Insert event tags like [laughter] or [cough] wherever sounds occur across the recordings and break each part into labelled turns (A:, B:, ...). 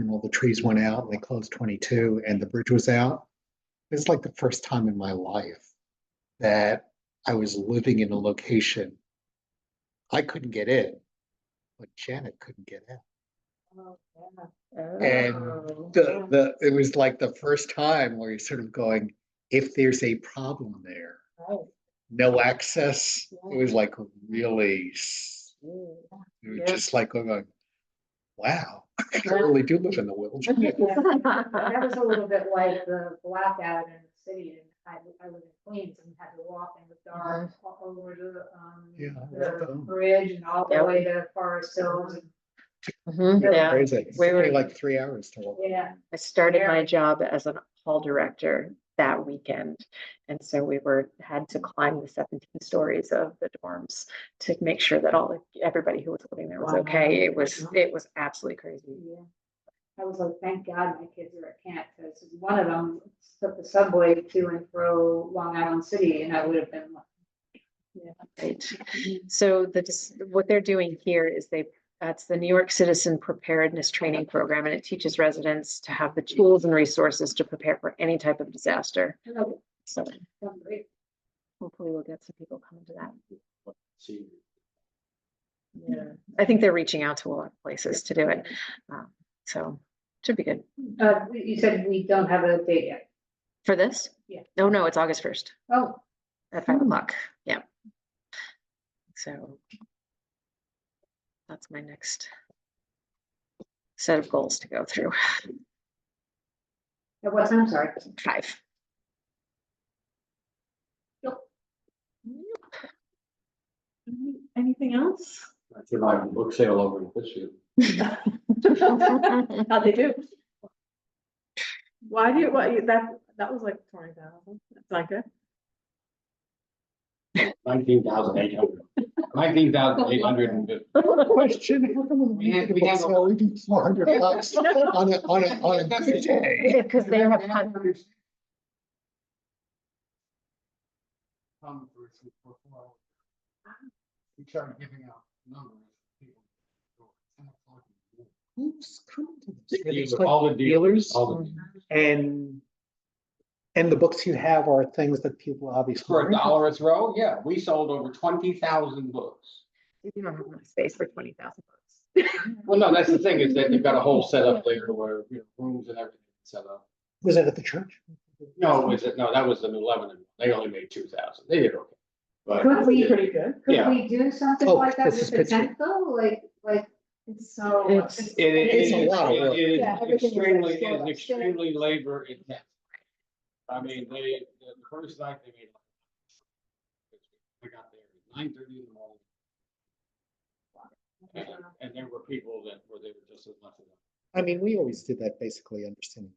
A: and all the trees went out and they closed twenty-two and the bridge was out. It's like the first time in my life that I was living in a location. I couldn't get in, but Janet couldn't get out.
B: Oh,
A: And The, the, it was like the first time where you're sort of going, if there's a problem there, no access, it was like really, s- it was
B: Yeah.
A: just like going, wow, I
B: Yeah.
A: really do live in the
B: [laughs]
A: wilderness.
B: That was a little bit like the blackout in the city, and I, I live in Queens and had to walk in the dark all over the, um,
A: Yeah, I love
B: the
A: that.
B: bridge and all the
C: Yep.
B: way to Forest Hills, and,
C: Mm-hmm. Yeah.
A: Crazy. It took
C: We
A: me
C: were-
A: like three hours to walk.
B: yeah.
C: I started
B: Yeah.
C: my job as an hall director that weekend. And so we were, had to climb the seventeen stories of the dorms to make sure that all, the everybody who was living there was
B: Wow.
C: okay. It was,
B: Wow.
C: it was absolutely crazy.
B: Yeah. I was like, thank God my kids are at camp, because one of them took the subway to and fro Long Island City, and I would have been like.
C: Right.
B: Mm-hmm.
C: So the, dis- what they're doing here is they, that's the New York Citizen Preparedness Training Program, and it teaches residents to have the tools and resources to prepare for any type of disaster.
B: "Hello,
C: So
B: I'm great."
C: hopefully we'll get some people coming to that.
D: See,
C: Yeah, I think they're reaching out to a lot of places to do it. Um, So should be good
B: Uh, you said we don't have a date yet.
C: for this.
B: Yeah.
C: No, no, it's August first
B: Oh,
C: at five o'clock. Yeah. So that's my next set of goals to go through. [laughs]
B: it was, I'm sorry.
C: Five.
E: Anything
B: [laughs]
E: else?
D: I came out of the book sale over in Fishview.
C: [laughs]
E: How'd they do? Why do you, why, you- that, that was like twenty thousand, that's not good.
D: Nineteen thousand eight hundred. Nineteen thousand eight hundred and fifty.
A: Question, how come
D: We had- we
A: people
D: had a-
A: sell even 400
D: [laughs]
A: bucks on a, on a, on a good day?
C: Because they have hun-
D: Come versus before. We started giving out numbers. people.
A: Who's coming to this? Are
D: These
A: these
D: are
A: like
D: All the dealers,
A: Dealers
D: all the, dealers.
A: and, and the books you have are things that people obviously.
D: for
A: are
D: a dollar a throw, yeah, we sold over twenty thousand books.
C: you don't have enough space for twenty thousand bucks.
D: Well, no, that's the thing is that you've got a whole setup there where, you know, rooms and everything set up.
A: Was that at the church?
D: No, was it, no, that was in eleven, and they only made two thousand, they did okay. But
B: Could we,
E: Pretty good.
B: could
D: Uh, Yeah.
B: we do something
A: Oh,
B: like that
A: this
B: with
A: is Pittsburgh.
B: the though? like, like, it's so.
C: It's-
D: it it
A: It's
D: is,
A: a lot of work.
D: it
E: Yeah,
D: is
E: everything is
D: extremely, it
E: like
D: is
E: sold out.
D: extremely labor intensive. I mean, they, the first night they made. like- We got there at nine thirty in the morning, and, and there were people that were there just as much as. us.
A: I mean, we always did that basically understanding.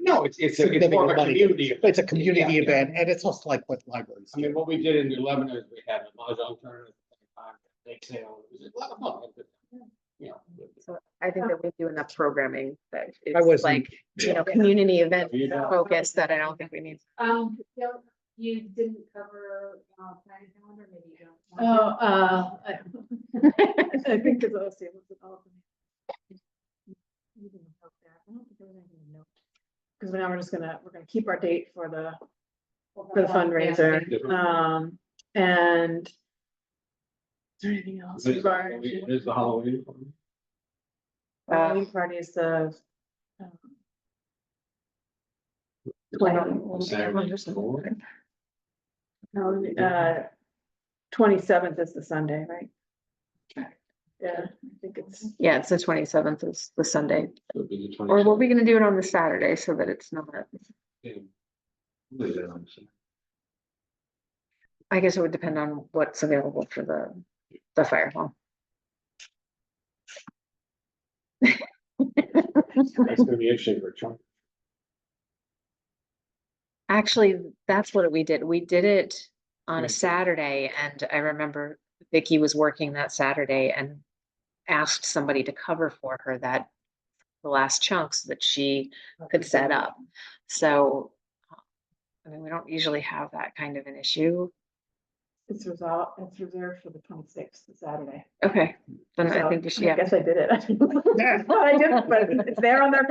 D: No, it's, it's, a- it's more of
A: Significant
D: a
A: money.
D: community.
A: It's a community
D: Yeah.
A: event and it's also like what libraries.
D: I mean,
A: do.
D: what we did in eleven is we had a mahjong tournament, at the same time, they sailed, it was a lot of fun. It was, You know,
C: I think that we do enough programming that it's
A: wasn't-
C: like, you know,
B: Yeah.
C: community event
D: You don't.
C: focus that I don't think we need.
B: Um, Phil, you didn't cover, uh, planning calendar, maybe you don't.
E: Oh,
B: want
E: uh, I [laughs] I think it's OC, what's it called? Because now we're just gonna, we're gonna keep our date for the
B: to-
E: for the fundraiser.
D: Yeah.
E: Um, and. Is there anything else?
D: It is
E: Bar-
D: Halloween- it is the Halloween. party.
C: Uh,
E: Halloween party is the. um,
C: Um,
D: The Saturday before.
E: no, Uh, twenty-seventh is the Sunday, right? Yeah, I think it's,
C: Yeah, it's the twenty seventh is the Sunday,
D: Would be the
C: or were
D: 27th.
C: we gonna do it on the Saturday so that it's not,
D: Leave it on, so.
C: I guess it would depend on what's available for the, the fire hall.
D: That's gonna be interesting for Trump.
C: Actually, that's what we did. We did it on a
D: Mm.
C: Saturday and I remember Vicky was working that Saturday and asked somebody to cover for her that the last chunks that she could set up. So I mean, we don't usually have that kind of an issue.
E: It's resolved, it's reserved for the twenty-sixth, Saturday.
C: Okay, then I
E: So,
C: think you should,
E: [laughs] I
C: yeah.
E: guess I did it. But I did, but it's there on their